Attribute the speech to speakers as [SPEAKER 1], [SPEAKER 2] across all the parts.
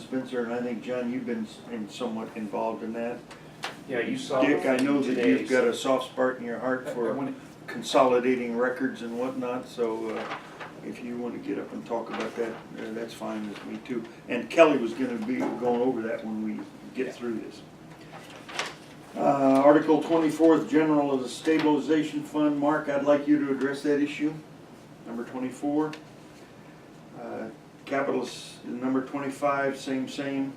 [SPEAKER 1] Spencer, and I think, John, you've been s- in somewhat involved in that.
[SPEAKER 2] Yeah, you saw.
[SPEAKER 1] Dick, I know that you've
[SPEAKER 2] today's-
[SPEAKER 1] got a soft spot in your heart
[SPEAKER 2] I- I
[SPEAKER 1] for
[SPEAKER 2] wanna-
[SPEAKER 1] consolidating records and whatnot, so uh, if you want to get up and talk about that, uh, that's fine with me too. And Kelly was gonna be going over that when we
[SPEAKER 2] Yeah.
[SPEAKER 1] get through this. Uh, Article twenty-fourth, general of the stabilization fund, Mark, I'd like you to address that issue, number twenty-four. Uh, Capital, s- number twenty-five, same, same.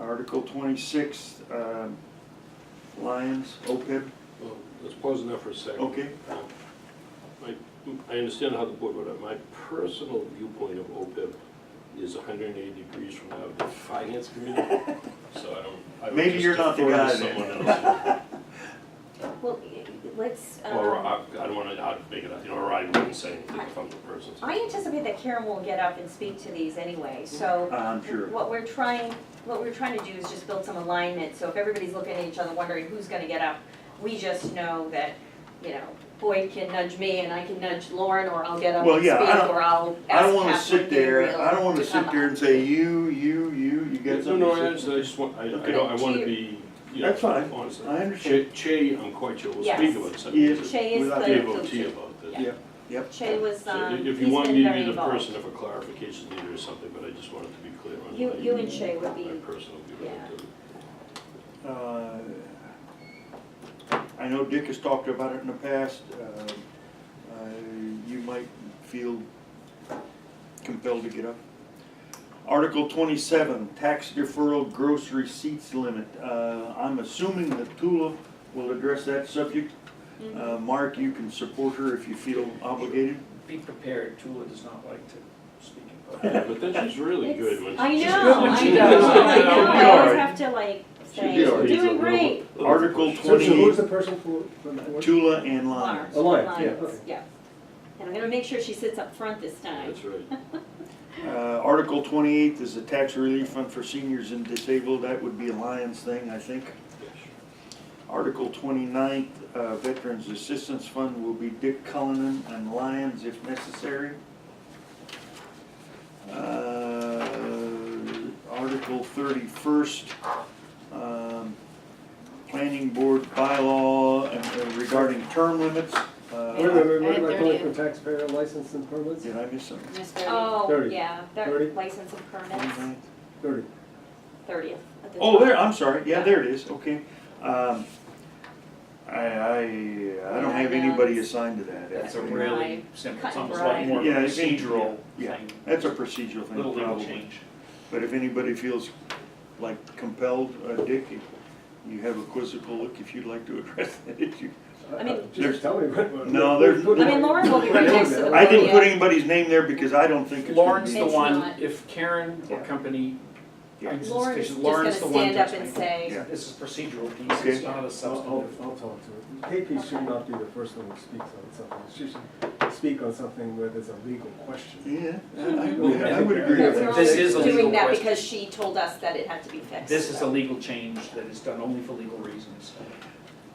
[SPEAKER 1] Article twenty-six, um, Lions, OPEB,
[SPEAKER 3] Well, let's pause on that for a second. Um,
[SPEAKER 1] okay,
[SPEAKER 3] I, I understand how the board would, my personal viewpoint of OPEB is hundred and eighty degrees from that of the finance committee, so I don't. I would
[SPEAKER 1] Maybe
[SPEAKER 3] just
[SPEAKER 1] you're not the
[SPEAKER 3] defer to
[SPEAKER 1] guy then.
[SPEAKER 3] Someone else,
[SPEAKER 4] Well, y- y- let's,
[SPEAKER 3] or
[SPEAKER 4] um,
[SPEAKER 3] I, I don't wanna, I'd make it, up, you know, or I wouldn't say anything if I'm the person.
[SPEAKER 4] I anticipate that Karen will get up and speak to these anyway, so
[SPEAKER 1] I'm sure.
[SPEAKER 4] what we're trying, what we're trying to do is just build some alignment, so if everybody's looking at each other wondering who's gonna get up, we just know that, you know, Boyd can nudge me and I can nudge Lauren, or I'll get up
[SPEAKER 1] Well,
[SPEAKER 4] and
[SPEAKER 1] yeah, I
[SPEAKER 4] speak,
[SPEAKER 1] don't-
[SPEAKER 4] or I'll ask Catherine.
[SPEAKER 1] I don't wanna sit
[SPEAKER 4] Gabriel
[SPEAKER 1] there, I don't wanna
[SPEAKER 4] to
[SPEAKER 1] sit
[SPEAKER 4] come
[SPEAKER 1] there
[SPEAKER 4] up.
[SPEAKER 1] and say, you, you, you, you got
[SPEAKER 3] No,
[SPEAKER 1] something
[SPEAKER 3] no, I
[SPEAKER 1] to
[SPEAKER 3] understand, I
[SPEAKER 1] say.
[SPEAKER 3] just want, I, I
[SPEAKER 1] Okay.
[SPEAKER 3] don't, I wanna
[SPEAKER 4] To
[SPEAKER 3] be, you know,
[SPEAKER 1] That's fine.
[SPEAKER 3] honest.
[SPEAKER 1] I understand.
[SPEAKER 3] Che, Che, I'm quite sure will
[SPEAKER 4] Yes.
[SPEAKER 3] speak about something.
[SPEAKER 1] Yes.
[SPEAKER 4] Che is
[SPEAKER 1] Without
[SPEAKER 4] the.
[SPEAKER 3] Dave O.T. about this.
[SPEAKER 4] Yeah.
[SPEAKER 1] Yep,
[SPEAKER 4] Che was,
[SPEAKER 3] So
[SPEAKER 4] um,
[SPEAKER 3] if-
[SPEAKER 4] he's
[SPEAKER 3] If you want
[SPEAKER 4] been
[SPEAKER 3] me to
[SPEAKER 4] very
[SPEAKER 3] be the
[SPEAKER 4] involved.
[SPEAKER 3] person, if a clarification needed or something, but I just wanted to be clear on.
[SPEAKER 4] You-
[SPEAKER 3] my-
[SPEAKER 4] you and Shay would be-
[SPEAKER 3] My personal view of it.
[SPEAKER 4] yeah.
[SPEAKER 1] Uh, I know Dick has talked about it in the past. Uh, uh, You might feel compelled to get up. Article twenty-seven, tax deferral gross receipts limit. Uh, I'm assuming that Tula will address that subject.
[SPEAKER 4] Mm-hmm.
[SPEAKER 1] Uh, Mark, you can support her if you feel obligated.
[SPEAKER 2] Be prepared, Tula does not like to speak in public.
[SPEAKER 3] Yeah, But then she's really
[SPEAKER 4] It's-
[SPEAKER 3] good when
[SPEAKER 4] I
[SPEAKER 3] she-
[SPEAKER 4] know,
[SPEAKER 3] she's
[SPEAKER 2] good when
[SPEAKER 4] I
[SPEAKER 2] she
[SPEAKER 4] know,
[SPEAKER 2] does it.
[SPEAKER 4] I know, I
[SPEAKER 1] Alright.
[SPEAKER 4] always have to like say,
[SPEAKER 1] did
[SPEAKER 4] you're
[SPEAKER 1] alright.
[SPEAKER 4] doing great.
[SPEAKER 1] Article
[SPEAKER 5] So so who's
[SPEAKER 1] twenty,
[SPEAKER 5] the person from, from the board?
[SPEAKER 1] Tula and Lyons.
[SPEAKER 5] A lion, yeah,
[SPEAKER 4] Lions,
[SPEAKER 5] okay.
[SPEAKER 4] yeah. And I'm gonna make sure she sits up front this time.
[SPEAKER 3] That's right.
[SPEAKER 1] Uh, Article twenty-eight is a tax relief fund for seniors and disabled. That would be a Lyons thing, I think. Article 29, uh, Veterans Assistance Fund will be Dick Cullinan and Lyons if necessary. Uh, Article 31st, um, Planning Board bylaw and- uh, regarding term limits. Uh,
[SPEAKER 5] Wait, wait, wait,
[SPEAKER 6] I
[SPEAKER 5] wait,
[SPEAKER 6] had
[SPEAKER 5] am I
[SPEAKER 6] thirty.
[SPEAKER 5] calling from taxpayer license and permits?
[SPEAKER 1] Did I miss something?
[SPEAKER 6] Mr.
[SPEAKER 4] Oh,
[SPEAKER 5] Thirty.
[SPEAKER 4] yeah, their
[SPEAKER 5] Thirty.
[SPEAKER 4] license and permits,
[SPEAKER 2] Mm-hmm.
[SPEAKER 1] 29th?
[SPEAKER 5] Thirty.
[SPEAKER 4] thirtieth at the
[SPEAKER 1] Oh,
[SPEAKER 4] top.
[SPEAKER 1] there, I'm sorry, yeah, there it is, okay. Um, I, I, I don't have anybody assigned to that.
[SPEAKER 2] That's a
[SPEAKER 1] actually.
[SPEAKER 2] really simple, it's
[SPEAKER 4] Cut and
[SPEAKER 2] almost like
[SPEAKER 4] dry.
[SPEAKER 2] more of a
[SPEAKER 1] Yeah, it's-
[SPEAKER 2] procedural
[SPEAKER 1] Yeah,
[SPEAKER 2] thing,
[SPEAKER 1] that's a procedural thing,
[SPEAKER 2] little legal
[SPEAKER 1] probably.
[SPEAKER 2] change.
[SPEAKER 1] But if anybody feels like compelled, uh, Dick, you- you have a quizzical look if you'd like to address that issue.
[SPEAKER 4] I mean-
[SPEAKER 1] There's-
[SPEAKER 5] Uh, Just tell me what. what-
[SPEAKER 1] No,
[SPEAKER 5] what-
[SPEAKER 1] there's-
[SPEAKER 5] what-
[SPEAKER 4] I mean, Lauren will be right next to the
[SPEAKER 5] Oh,
[SPEAKER 1] I didn't put
[SPEAKER 4] Yeah.
[SPEAKER 1] anybody's name there because I don't think it's. gonna
[SPEAKER 2] Lauren's the
[SPEAKER 4] It's
[SPEAKER 2] one,
[SPEAKER 4] not.
[SPEAKER 2] if Karen or
[SPEAKER 1] Yeah.
[SPEAKER 2] company
[SPEAKER 1] Yeah.
[SPEAKER 2] brings this,
[SPEAKER 4] Lauren is
[SPEAKER 2] because
[SPEAKER 4] just
[SPEAKER 2] Lauren's
[SPEAKER 4] gonna
[SPEAKER 2] the one
[SPEAKER 4] stand up
[SPEAKER 2] that's
[SPEAKER 4] and
[SPEAKER 2] making.
[SPEAKER 4] say,
[SPEAKER 1] Yeah.
[SPEAKER 2] This is procedural piece,
[SPEAKER 1] Okay. Oh,
[SPEAKER 2] it's not a
[SPEAKER 5] I'll, I'll,
[SPEAKER 2] substantive.
[SPEAKER 5] I'll talk to her. KP should not be the first one who speaks on something. She should speak on something where there's a legal question.
[SPEAKER 1] Yeah, I- I would- I would agree with
[SPEAKER 4] that's
[SPEAKER 5] Yeah.
[SPEAKER 1] that.
[SPEAKER 4] wrong,
[SPEAKER 2] This is a
[SPEAKER 4] we're
[SPEAKER 2] legal
[SPEAKER 4] doing that
[SPEAKER 2] question.
[SPEAKER 4] because she told us that it had to be fixed.
[SPEAKER 2] This is a legal change that is done only for legal reasons.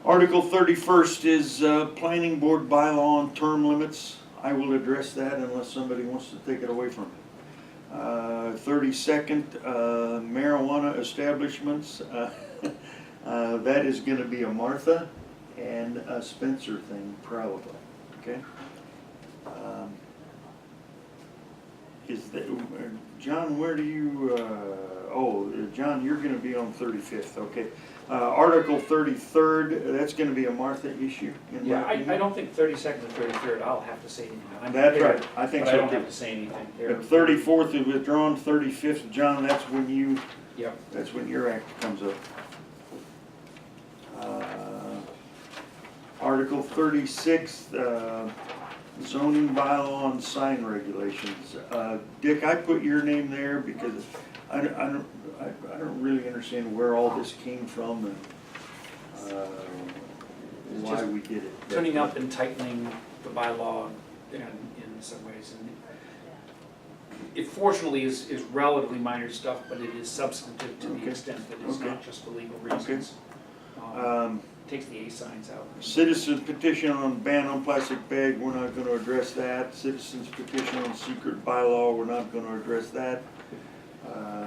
[SPEAKER 1] Article thirty-first is, uh, planning board bylaw on term limits. I will address that unless somebody wants to take it away from me. Uh, thirty-second, uh, marijuana establishments, uh, uh, that is gonna be a Martha and a Spencer thing probably, okay? Um, Is that, John, where do you, uh, oh, uh, John, you're gonna be on thirty-fifth, okay? Uh, Article thirty-third, that's gonna be a Martha issue in my
[SPEAKER 2] Yeah, I, I
[SPEAKER 1] opinion.
[SPEAKER 2] don't think thirty-second and thirty-third, I'll have to say anything. I'm
[SPEAKER 1] That's
[SPEAKER 2] prepared,
[SPEAKER 1] right, I think
[SPEAKER 2] But I
[SPEAKER 1] so
[SPEAKER 2] don't
[SPEAKER 1] too.
[SPEAKER 2] have to say anything. They're-
[SPEAKER 1] But thirty-fourth is withdrawn, thirty-fifth, John, that's when you
[SPEAKER 2] Yep.
[SPEAKER 1] That's when your act comes up. Uh, Article thirty-six, uh, zoning bylaw and sign regulations. Uh, Dick, I put your name there because I don't, I don't, I- I don't really understand where all this came from and, uh,
[SPEAKER 2] It's
[SPEAKER 1] why
[SPEAKER 2] just
[SPEAKER 1] we did it.
[SPEAKER 2] tuning up and tightening the bylaw in, in some ways. and It fortunately is, is relatively minor stuff, but it is substantive to
[SPEAKER 1] Okay.
[SPEAKER 2] the extent that it's
[SPEAKER 1] Okay.
[SPEAKER 2] not just for legal reasons. Um,
[SPEAKER 1] Um,
[SPEAKER 2] Takes the A signs out.
[SPEAKER 1] Citizen petition on ban on plastic bag, we're not gonna address that. Citizens petition on secret bylaw, we're not gonna address that. Uh, Uh,